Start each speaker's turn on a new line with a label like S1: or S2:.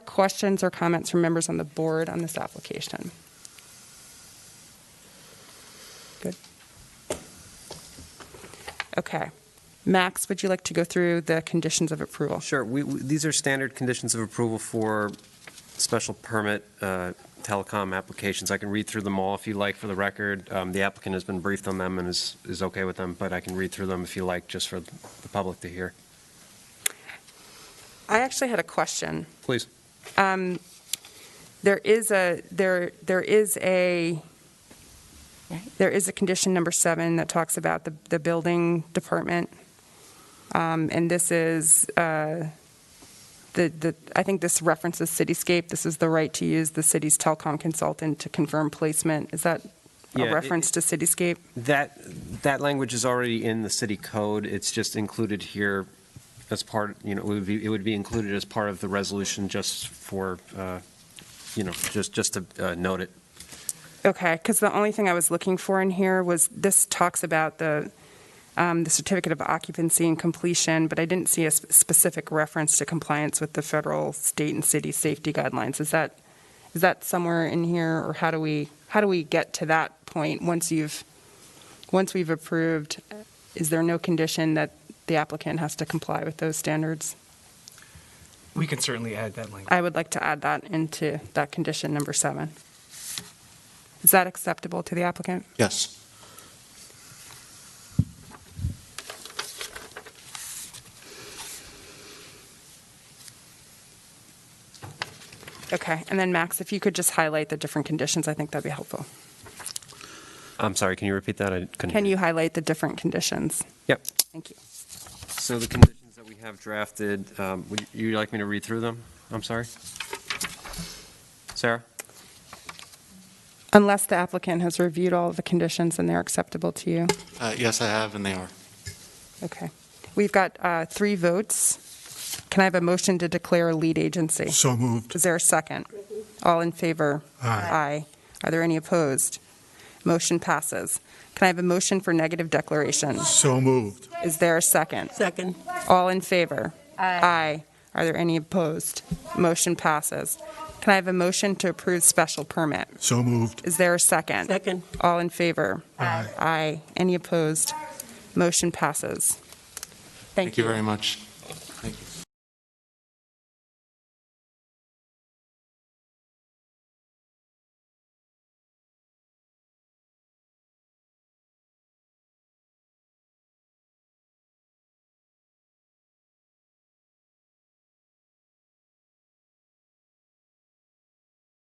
S1: questions or comments from members on the board on this application? Good. Okay. Max, would you like to go through the conditions of approval?
S2: Sure. We, we- these are standard conditions of approval for special permit uh, telecom applications. I can read through them all if you like for the record. Um, The applicant has been briefed on them and is, is okay with them, but I can read through them if you like, just for the public to hear.
S1: I actually had a question.
S2: Please.
S1: There is a, there, there is a,
S3: Right.
S1: there is a condition number seven that talks about the, the building department. Um, And this is, uh, the, the, I think this references Cityscape. This is the right to use the city's telecom consultant to confirm placement. Is that
S2: Yeah,
S1: a
S2: it-
S1: reference to Cityscape?
S2: That, that language is already in the city code. It's just included here as part, you know, it would be, it would be included as part of the resolution just for, uh, you know, just, just to uh, note it.
S1: Okay, because the only thing I was looking for in here was, this talks about the, um, the certificate of occupancy and completion, but I didn't see a sp- specific reference to compliance with the federal, state, and city safety guidelines. Is that, is that somewhere in here, or how do we, how do we get to that point once you've, once we've approved? Is there no condition that the applicant has to comply with those standards?
S4: We can certainly add that language.
S1: I would like to add that into that condition number seven. Is that acceptable to the applicant?
S5: Yes.
S1: Okay, and then Max, if you could just highlight the different conditions, I think that'd be helpful.
S2: I'm sorry, can you repeat that? I couldn't.
S1: Can
S2: hear
S1: you highlight the different conditions?
S2: Yep.
S1: Thank you.
S2: So the conditions that we have drafted, um, would you like me to read through them? I'm sorry? Sarah?
S1: Unless the applicant has reviewed all of the conditions and they're acceptable to you.
S5: Uh, Yes, I have, and they are.
S1: Okay. We've got uh, three votes. Can I have a motion to declare a lead agency?
S6: So moved.
S1: Is there a second? All in favor?
S6: Aye.
S1: Aye. Are there any opposed? Motion passes. Can I have a motion for negative declaration?
S6: So moved.
S1: Is there a second?
S7: Second.
S1: All in favor? Aye. Are there any opposed? Motion passes. Can I have a motion to approve special permit?
S6: So moved.
S1: Is there a second?
S7: Second.
S1: All in favor?
S6: Aye.
S1: Aye. Any opposed? Motion passes.
S5: Thank you very much.